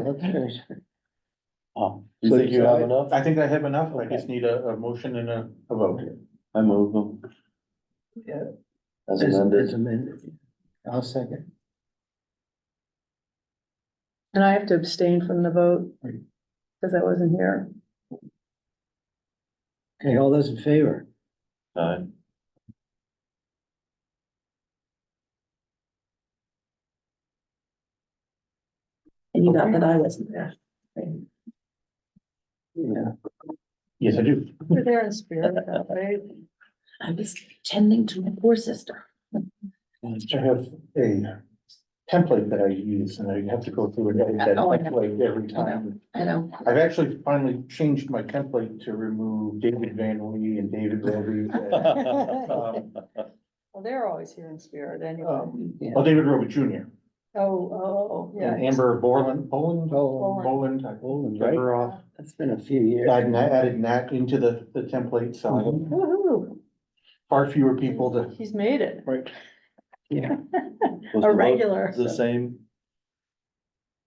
look at it. Oh, You think you have enough? I think I have enough, I just need a, a motion and a, a vote. I move them. Yeah. As It's- it's amended, amended. I'll second. And I have to abstain from the vote. Right. Cause I wasn't here. Okay, all those in favor? aye. And you got that I wasn't there. Yeah. Yes, I do. You're there in spirit, though, right? I was tending to my poor sister. I have a template that I use and I have to go through and edit that Oh, I know. template every time. I know. I've actually finally changed my template to remove David Van Lee and David Robey. and, um, Well, they're always here in spirit anyway. um, Yeah. Oh, David Robey Jr. Oh, oh, oh, yeah. and Amber Borland, Boland, Oh, Boland, I Poland, took right? her off. It's been a few years. I added that into the, the template, so I have Mhm. Woo-hoo. far fewer people to. He's made it. Right. Yeah. Was the A vote regular. The same?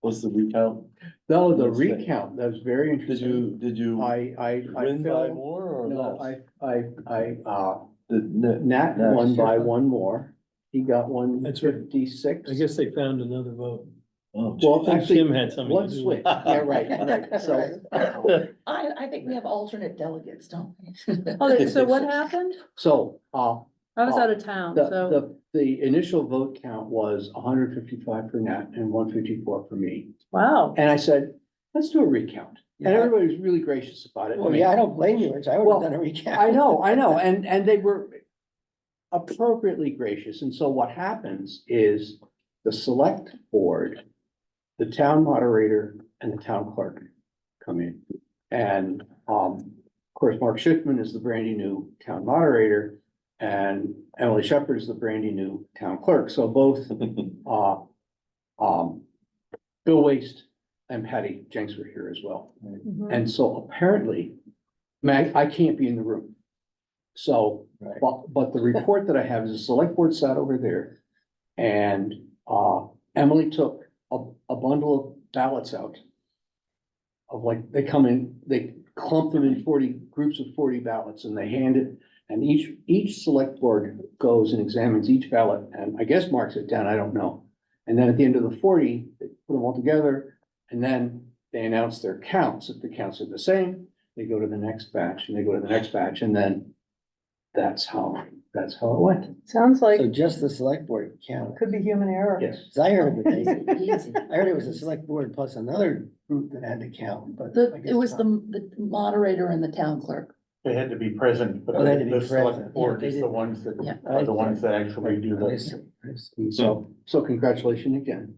Was the recount, No, the Let's see. recount, that was very did interesting. you, did you I, I, I win by fell, more or no, less? I, I, I, uh, Did Nick- Nat Nat- won by one more. He got one That's right. fifty-six. I guess they found another vote. oh, Well, I think actually, Jim had something. One to do switch, with it. yeah, right, right, so, I, I think we have alternate delegates, don't we? Oh, so what happened? so, uh, I was out of town, the, so. the, the initial vote count was hundred fifty-five for Nat and one fifty-four for me. Wow. And I said, let's do a recount. Yeah. And everybody was really gracious about it. Well, yeah, I don't blame you, Rich. I would Well, have done a recap. I know, I know, and, and they were appropriately gracious, and so what happens is the select board, the town moderator and the town clerk come in. And, um, of course, Mark Schiffman is the brandy new town moderator, and Emily Shepherd is the brandy new town clerk, so both, uh, um, Bill Waste and Patty Jenks were here as well. Mhm. And so apparently, Mag, I can't be in the room. So, Right. but, but the report that I have is the select board sat over there. And, uh, Emily took a, a bundle of ballots out. Of like, they come in, they clump them in forty, groups of forty ballots and they hand it. And each, each select board goes and examines each ballot and I guess marks it down, I don't know. And then at the end of the forty, they put them all together and then they announce their counts. If the counts are the same, they go to the next batch and they go to the next batch and then that's how, that's how it went. Sounds like So just the select board counted. could be human error. Yes. 'Cause I heard that they, Easy. I heard it was a select board plus another group that had to count, but. I The, guess it was the, not. the moderator and the town clerk. They had to be present, but Oh, they had to be the present. select board Yeah, they is the did. ones that, Yeah. are the ones that actually do I this. see, I see. So, so congratulations again.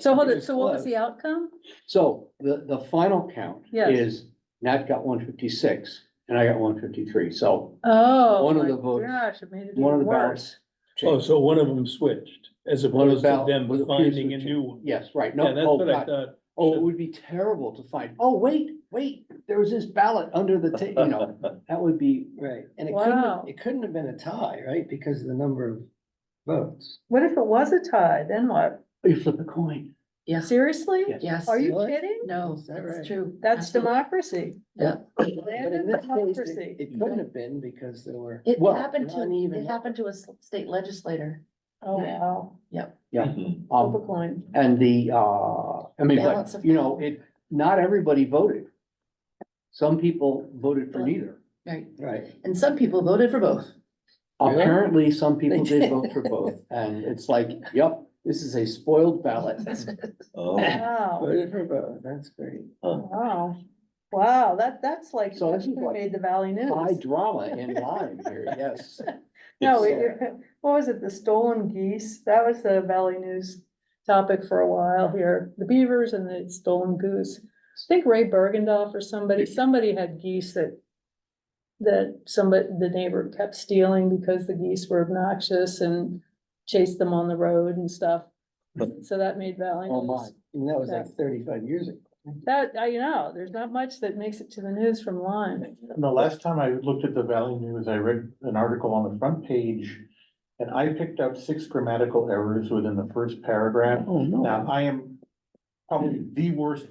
So hold it, so what was the outcome? So the, the final count Yes. is Nat got one fifty-six and I got one fifty-three, so. Oh. One of my the votes- Gosh, it made it one of even the ballots- worse. Oh, so one of them switched as One opposed to about- them was a piece finding a which- new one. Yes, right, no, Yeah, that's oh, what I God. thought. oh, it would be terrible to find, oh, wait, wait, there was this ballot under the ta, you know, that would be, Right, and it couldn't, Wow. have- it couldn't have been a tie, right, because of the number of votes. What if it was a tie? Then what? you flip a coin. Yes, Seriously? Yes. yes. Are you Really? kidding? No, Is that right? that's true. That's Absolutely. democracy. Yeah. But in Land this of case, democracy. it- it couldn't have been because there were. It Well, happened to, uneven. it happened to a s- state legislator. Oh, wow. Flip a Um, coin. and the, uh, I mean, Balance but, of you know, power. it, not everybody voted. Some people voted for neither. Right. Right, And some people voted for both. Really? Apparently, some people They did did. vote for both, and it's like, yep, this is a spoiled ballot. Oh, Wow, voted for both, that's great. wow. Wow, that, that's like, So this is who like made the Valley High News. drama in line here, yes. No, it- it's, it- what was it? The stolen geese? That was the Valley News topic for a while here. The beavers and the stolen goose. I think Ray Bergendoff or somebody, somebody had geese that that somebody, the neighbor kept stealing because the geese were obnoxious and chased them on the road and stuff. So that made Valley Oh, my, News. and that was like thirty-five years ago. That, I you know, there's not much that makes it to the news from Lyme. And the last time I looked at the Valley News, I read an article on the front page. And I picked up six grammatical errors within the first paragraph. Oh, no. Now, I am, probably the worst